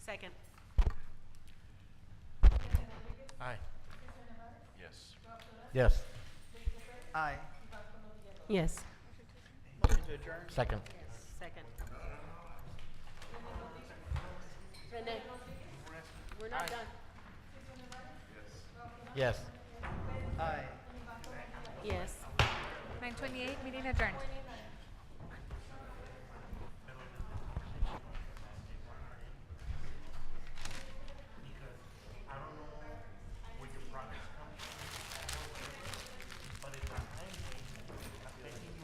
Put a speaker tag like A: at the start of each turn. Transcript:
A: Second.
B: Aye.
C: Yes.
B: Yes.
D: Aye.
A: Yes.
D: Motion to adjourn?
B: Second.
A: Second. Renee? We're not done.
B: Yes.
D: Aye.
A: Yes.
E: 928, meeting adjourned.